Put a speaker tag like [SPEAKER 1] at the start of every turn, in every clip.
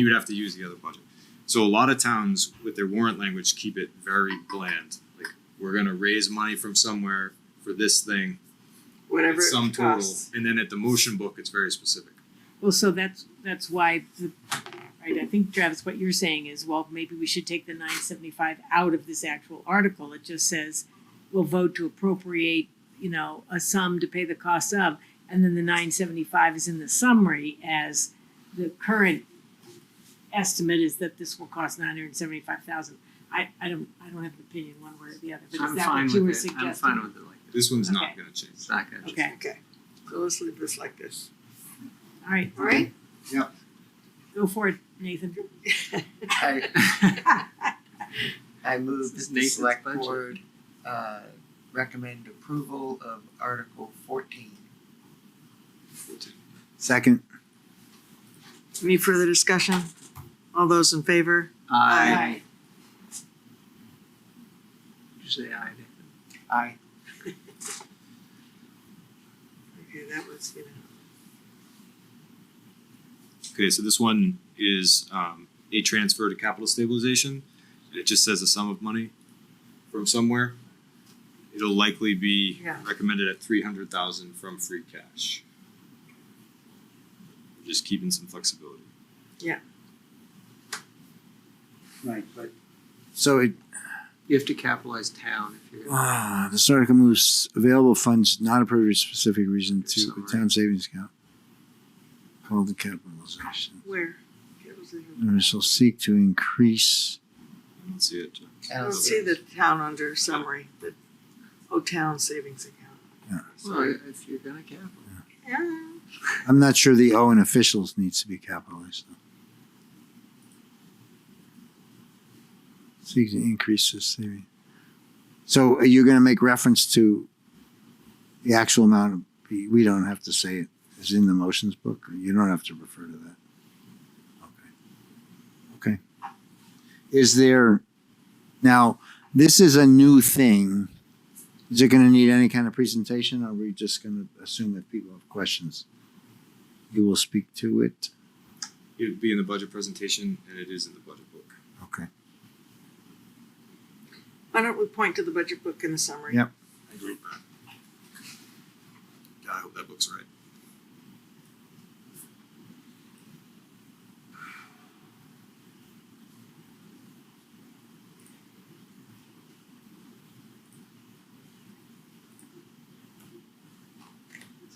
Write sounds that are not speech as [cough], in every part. [SPEAKER 1] you would have to use the other budget. So a lot of towns with their warrant language keep it very bland, like we're gonna raise money from somewhere for this thing,
[SPEAKER 2] whatever
[SPEAKER 1] it's
[SPEAKER 2] it
[SPEAKER 1] some total,
[SPEAKER 2] costs.
[SPEAKER 1] and then at the motion book, it's very specific.
[SPEAKER 3] Well, so that's, that's why, the- right, I think Travis, what you're saying is, well, maybe we should take the nine seventy-five out of this actual article. It just says, we'll vote to appropriate, you know, a sum to pay the cost of, and then the nine seventy-five is in the summary as the current estimate is that this will cost nine hundred and seventy-five thousand. I, I don't, I don't have an opinion one way or the other, but is
[SPEAKER 4] I'm
[SPEAKER 3] that
[SPEAKER 4] fine
[SPEAKER 3] what you were
[SPEAKER 4] with it,
[SPEAKER 3] suggesting?
[SPEAKER 4] I'm fine with it like that,
[SPEAKER 1] This one's not
[SPEAKER 3] Okay.
[SPEAKER 1] gonna change.
[SPEAKER 4] it's
[SPEAKER 3] [laughs]
[SPEAKER 4] not [laughs] gonna.
[SPEAKER 3] Okay,
[SPEAKER 2] Okay, so let's leave this like this,
[SPEAKER 3] all right,
[SPEAKER 2] all [laughs] right?
[SPEAKER 3] go for it, Nathan.
[SPEAKER 4] [laughs]
[SPEAKER 5] I, I move
[SPEAKER 4] This is
[SPEAKER 5] that the
[SPEAKER 4] Nathan's
[SPEAKER 5] select
[SPEAKER 4] budget.
[SPEAKER 5] board, uh, recommend approval of Article fourteen.
[SPEAKER 6] Second.
[SPEAKER 2] Any further discussion? All those in favor? Aye.
[SPEAKER 4] Did you say aye, Nathan?
[SPEAKER 5] Aye.
[SPEAKER 2] Okay, that was, you know.
[SPEAKER 1] Okay, so this one is um a transfer to capital stabilization, and it just says a sum of money from somewhere. It'll likely be
[SPEAKER 2] Yeah.
[SPEAKER 1] recommended at three hundred thousand from free cash. Just keeping some flexibility.
[SPEAKER 6] Right, but. So it,
[SPEAKER 4] You have to capitalize town if you're. gonna-
[SPEAKER 6] ah, this article moves available funds not approved for specific reason to the town savings account. Called the capitalization.
[SPEAKER 2] Where? That was in-
[SPEAKER 6] And it shall seek to increase,
[SPEAKER 1] I don't see it. uh,
[SPEAKER 2] I don't see the town under summary, the, oh, town savings account.
[SPEAKER 4] Well, if you're gonna capitalize.
[SPEAKER 2] Yeah.
[SPEAKER 6] I'm not sure the O in officials needs to be capitalized. though. Seek to increase this theory. So are you gonna make reference to the actual amount of, we don't have to say it, is in the motions book, you don't have to refer to that. Okay. Okay. Is there, now, this is a new thing. Is it gonna need any kind of presentation, or are we just gonna assume that people have questions? You will speak to it.
[SPEAKER 1] It'd be in the budget presentation and it is in the budget book.
[SPEAKER 6] Okay.
[SPEAKER 2] Why don't we point to the budget book in the summary?
[SPEAKER 6] Yeah.
[SPEAKER 1] I agree with that. God, I hope that book's right.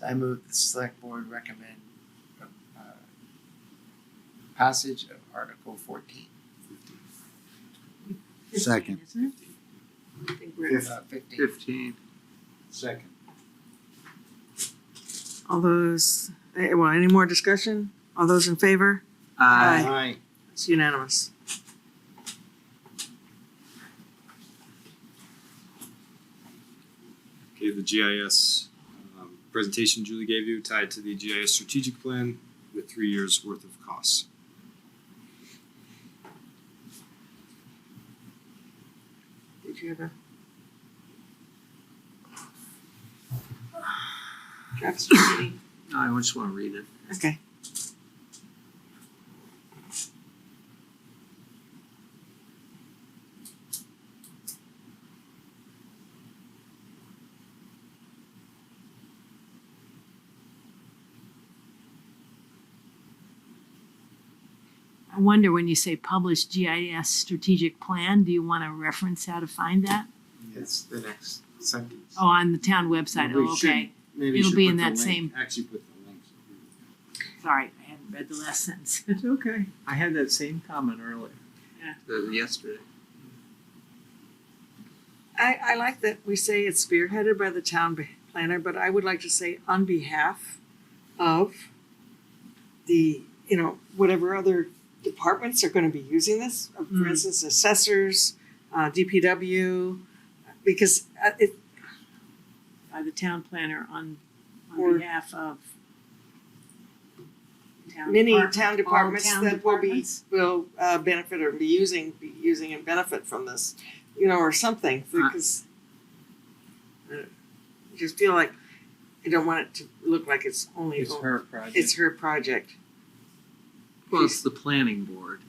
[SPEAKER 5] I move the select board recommend, uh, passage of Article fourteen, uh,
[SPEAKER 6] Second.
[SPEAKER 3] Isn't it?
[SPEAKER 2] I think we're,
[SPEAKER 5] uh, fifteen.
[SPEAKER 4] Fifteen.
[SPEAKER 6] Second.
[SPEAKER 2] all those, eh, well, any more discussion? All those in favor? Aye. It's unanimous.
[SPEAKER 1] Okay, the GIS um, presentation Julie gave you tied to the GIS strategic plan with three years worth of costs.
[SPEAKER 2] Did you have a? Travis, do you have any?
[SPEAKER 4] No, I just wanna read it.
[SPEAKER 2] Okay.
[SPEAKER 3] I wonder when you say published GIS strategic plan, do you want to reference how to find that?
[SPEAKER 7] It's the next sentence.
[SPEAKER 3] Oh, on the town website,
[SPEAKER 7] Well, we
[SPEAKER 3] oh, okay,
[SPEAKER 7] Maybe
[SPEAKER 3] it'll
[SPEAKER 7] you should
[SPEAKER 3] be
[SPEAKER 7] put
[SPEAKER 3] in
[SPEAKER 7] the
[SPEAKER 3] that
[SPEAKER 7] link-
[SPEAKER 3] same-
[SPEAKER 7] Actually put the links.
[SPEAKER 3] sorry, I hadn't read the last [laughs] sentence.
[SPEAKER 4] It's okay. I had that same comment earlier.
[SPEAKER 3] Yeah.
[SPEAKER 4] The- Yesterday.
[SPEAKER 2] I, I like that we say it's spearheaded by the town be- planner, but I would like to say on behalf of the, you know, whatever other departments are gonna be using this, uh, for
[SPEAKER 3] Mm.
[SPEAKER 2] instance, assessors, uh, DPW, because uh, it,
[SPEAKER 3] By the town planner on,
[SPEAKER 2] Or-
[SPEAKER 3] on behalf of town
[SPEAKER 2] many
[SPEAKER 3] depart-
[SPEAKER 2] town departments
[SPEAKER 3] town
[SPEAKER 2] that will be,
[SPEAKER 3] departments?
[SPEAKER 2] will, uh, benefit or be using, be using and benefit from this, you know, or something, because I don't- I just feel like I don't want it to look like it's only
[SPEAKER 4] It's her project.
[SPEAKER 2] It's her project.
[SPEAKER 4] Well, it's the planning board.